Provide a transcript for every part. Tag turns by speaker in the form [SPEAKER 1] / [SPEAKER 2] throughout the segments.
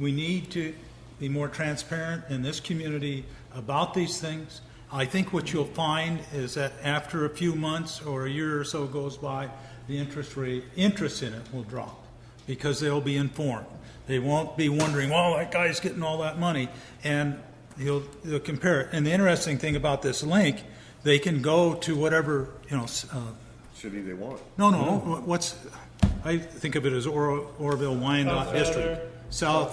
[SPEAKER 1] We need to be more transparent in this community about these things. I think what you'll find is that after a few months or a year or so goes by, the interest rate, interest in it will drop because they'll be informed. They won't be wondering, well, that guy's getting all that money, and he'll, they'll compare it. And the interesting thing about this link, they can go to whatever, you know, s- uh,
[SPEAKER 2] city they want.
[SPEAKER 1] no, no, wh- what's, I think of it as Oro- Oroville Wyandotte District. South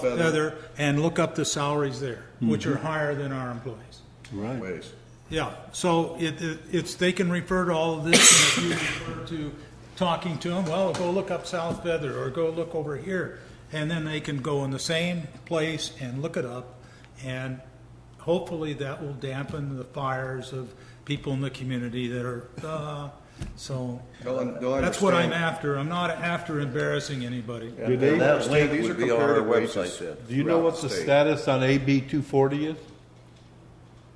[SPEAKER 2] South Feather.
[SPEAKER 1] Feather, and look up the salaries there, which are higher than our employees.
[SPEAKER 3] Right.
[SPEAKER 2] Ways.
[SPEAKER 1] Yeah, so it, it- it's, they can refer to all of this, and if you refer to talking to them, well, go look up South Feather, or go look over here. And then they can go in the same place and look it up, and hopefully that will dampen the fires of people in the community that are, uh, so.
[SPEAKER 2] They'll un- they'll
[SPEAKER 1] That's what I'm
[SPEAKER 2] understand.
[SPEAKER 1] after, I'm not after embarrassing anybody.
[SPEAKER 3] Do they-
[SPEAKER 4] That link
[SPEAKER 2] These are
[SPEAKER 4] would be on our
[SPEAKER 2] comparative wages
[SPEAKER 4] website then.
[SPEAKER 3] Do you know
[SPEAKER 2] throughout
[SPEAKER 3] what the
[SPEAKER 2] state.
[SPEAKER 3] status on AB 240 is?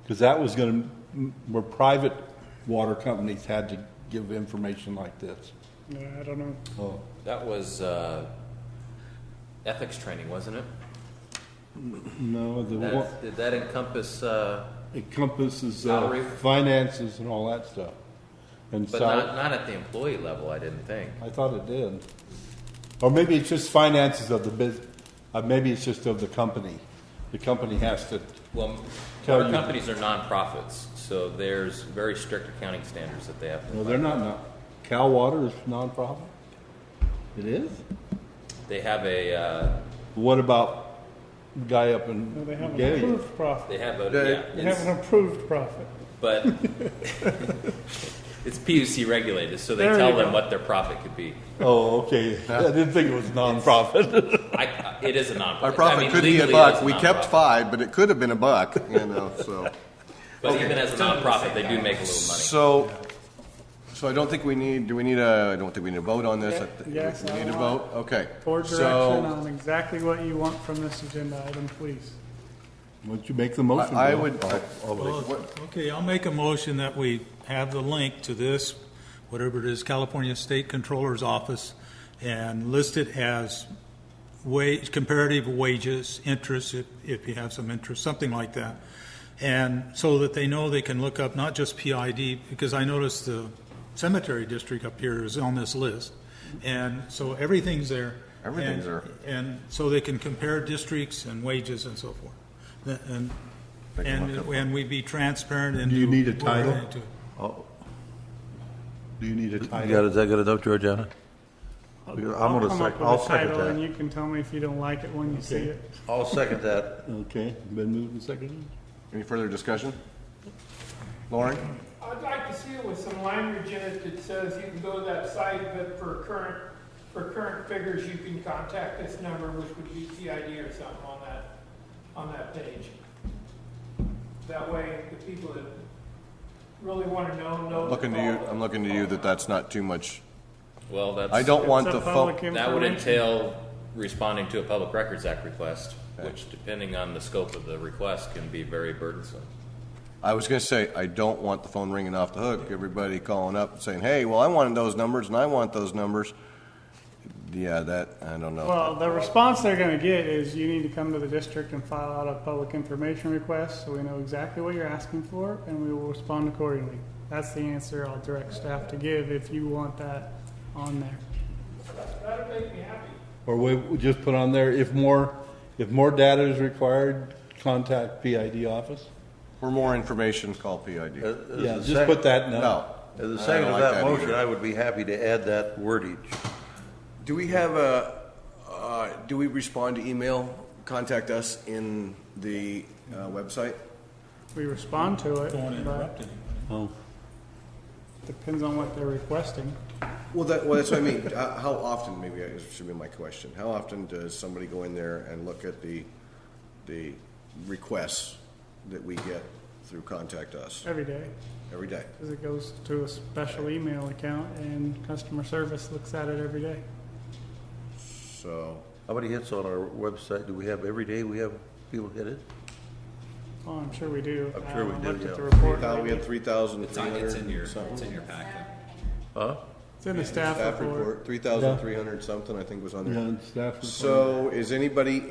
[SPEAKER 3] Because that was going to, where private water companies had to give information like this.
[SPEAKER 5] I don't know.
[SPEAKER 6] That was uh, ethics training, wasn't it?
[SPEAKER 3] No, the one,
[SPEAKER 6] That, did that encompass? Uh,
[SPEAKER 3] encompasses
[SPEAKER 6] Salary?
[SPEAKER 3] uh, finances and all that stuff. And
[SPEAKER 6] but
[SPEAKER 3] so,
[SPEAKER 6] not not at the employee level. I didn't think.
[SPEAKER 3] I thought it did. Or maybe it's just finances of the bus, uh, maybe it's just of the company. The company has to,
[SPEAKER 6] Well,
[SPEAKER 3] Tell
[SPEAKER 6] water
[SPEAKER 3] you-
[SPEAKER 6] companies are nonprofits, so there's very strict accounting standards that they have.
[SPEAKER 3] no, they're not, non Cal Water is nonprofit? It is?
[SPEAKER 6] They have a uh,
[SPEAKER 3] What about guy up
[SPEAKER 5] No,
[SPEAKER 3] in
[SPEAKER 5] They have an
[SPEAKER 3] Galia?
[SPEAKER 5] approved profit.
[SPEAKER 6] they have a
[SPEAKER 2] They-
[SPEAKER 6] yeah,
[SPEAKER 5] They
[SPEAKER 6] it's-
[SPEAKER 5] have an approved profit.
[SPEAKER 6] but it's PUC regulated, so they
[SPEAKER 5] There
[SPEAKER 6] tell
[SPEAKER 5] you
[SPEAKER 6] them
[SPEAKER 5] go.
[SPEAKER 6] what their profit could be.
[SPEAKER 3] Oh, okay. I didn't think it was nonprofit.
[SPEAKER 6] I, it is a nonprofit.
[SPEAKER 4] Our
[SPEAKER 6] I
[SPEAKER 4] profit
[SPEAKER 6] mean,
[SPEAKER 4] could be a
[SPEAKER 6] legally,
[SPEAKER 4] buck.
[SPEAKER 6] it's
[SPEAKER 4] We kept
[SPEAKER 6] nonprofit.
[SPEAKER 4] five, but it could have been a buck, you know, so.
[SPEAKER 6] But even as a nonprofit, they do make a little money.
[SPEAKER 4] So, so I don't think we need, do we need a, I don't think we need a vote on this. I think
[SPEAKER 5] Yes,
[SPEAKER 4] We
[SPEAKER 5] I
[SPEAKER 4] need a
[SPEAKER 5] want-
[SPEAKER 4] vote, okay.
[SPEAKER 5] Board
[SPEAKER 4] So,
[SPEAKER 5] direction on exactly what you want from this agenda item, please.
[SPEAKER 3] Would you make the motion?
[SPEAKER 4] I- I
[SPEAKER 3] Bill?
[SPEAKER 4] would- oh,
[SPEAKER 3] I'll- I'll make-
[SPEAKER 1] Well, Okay, I'll make a motion that we have the link to this, whatever it is, California State Controller's Office, and list it as wage, comparative wages, interest, if, if you have some interest, something like that. And so that they know they can look up not just PID, because I noticed the cemetery district up here is on this list. And so everything's there.
[SPEAKER 4] Everything's there.
[SPEAKER 1] And so they can compare districts and wages and so forth. Th- And,
[SPEAKER 4] They can look
[SPEAKER 1] and,
[SPEAKER 4] up-
[SPEAKER 1] and we be transparent and.
[SPEAKER 3] Do you
[SPEAKER 1] do
[SPEAKER 3] need a
[SPEAKER 1] what we're
[SPEAKER 3] title?
[SPEAKER 1] gonna do.
[SPEAKER 3] Do you need a
[SPEAKER 7] You
[SPEAKER 3] title?
[SPEAKER 7] got it, is that good enough, Georgiana? I'm
[SPEAKER 5] I'll
[SPEAKER 7] gonna
[SPEAKER 5] come
[SPEAKER 7] sec-
[SPEAKER 5] up with
[SPEAKER 7] I'll
[SPEAKER 5] a
[SPEAKER 7] second
[SPEAKER 5] title
[SPEAKER 7] that.
[SPEAKER 5] And you can tell me if you don't like it when you see it.
[SPEAKER 7] I'll second that.
[SPEAKER 3] Okay, been moved and seconded?
[SPEAKER 4] Any further discussion? Lauren?
[SPEAKER 8] I'd like to see it with some language in it that says you can go to that site, but for current, for current figures, you can contact this number, which would be PID or something on that, on that page. That way, the people that really want to know, know.
[SPEAKER 4] Looking to you, I'm looking to you that that's not too much.
[SPEAKER 6] Well, that's
[SPEAKER 4] I don't want
[SPEAKER 5] It's
[SPEAKER 4] the
[SPEAKER 5] a
[SPEAKER 4] phone.
[SPEAKER 5] public
[SPEAKER 6] That would
[SPEAKER 5] information.
[SPEAKER 6] entail responding to a Public Records Act request, which depending on the scope of the request can be very burdensome.
[SPEAKER 4] I was going to say, I don't want the phone ringing off the hook, everybody calling up and saying, hey, well, I wanted those numbers and I want those numbers. Yeah, that, I don't know.
[SPEAKER 5] Well, the response they're gonna get is you need to come to the district and file out a public information request, so we know exactly what you're asking for, and we will respond accordingly. That's the answer I'll direct staff to give if you want that on there.
[SPEAKER 8] That'd make me happy.
[SPEAKER 3] Or we we just put on there, if more, if more data is required, contact PID office?
[SPEAKER 4] For more information, call PID.
[SPEAKER 3] Yeah, just put that in.
[SPEAKER 4] Uh, No.
[SPEAKER 7] As
[SPEAKER 4] I
[SPEAKER 7] a second
[SPEAKER 4] don't
[SPEAKER 7] of
[SPEAKER 4] like
[SPEAKER 7] that
[SPEAKER 4] that
[SPEAKER 7] motion,
[SPEAKER 4] either.
[SPEAKER 7] I would be happy to add that wordage.
[SPEAKER 4] Do we have a, uh, do we respond to email? Contact us in the uh, website?
[SPEAKER 5] We respond to
[SPEAKER 1] Don't want to
[SPEAKER 5] it,
[SPEAKER 1] interrupt
[SPEAKER 5] but
[SPEAKER 1] anybody.
[SPEAKER 5] depends on what they're requesting.
[SPEAKER 4] Well, that, well, that's what I mean. Uh, How often, maybe that should be my question. How often does somebody go in there and look at the, the requests that we get through Contact Us?
[SPEAKER 5] Every day,
[SPEAKER 4] Every day?
[SPEAKER 5] because it goes to a special email account, and customer service looks at it every day.
[SPEAKER 4] So,
[SPEAKER 7] How many hits on our website do we have? Every day we have people hit it?
[SPEAKER 5] Oh, I'm sure we do.
[SPEAKER 7] I'm sure we
[SPEAKER 5] I
[SPEAKER 7] do,
[SPEAKER 5] looked at
[SPEAKER 7] yeah.
[SPEAKER 5] the report
[SPEAKER 4] thou- we
[SPEAKER 5] lately.
[SPEAKER 4] had three thousand
[SPEAKER 6] It's
[SPEAKER 4] three
[SPEAKER 6] on,
[SPEAKER 4] hundred
[SPEAKER 6] it's in your,
[SPEAKER 4] and
[SPEAKER 6] it's
[SPEAKER 4] something.
[SPEAKER 6] in your packet.
[SPEAKER 7] Huh?
[SPEAKER 5] It's in the staff
[SPEAKER 4] Staff
[SPEAKER 5] report.
[SPEAKER 4] report, three thousand three hundred something, I think was on there.
[SPEAKER 3] Yeah, staff report.
[SPEAKER 4] So is anybody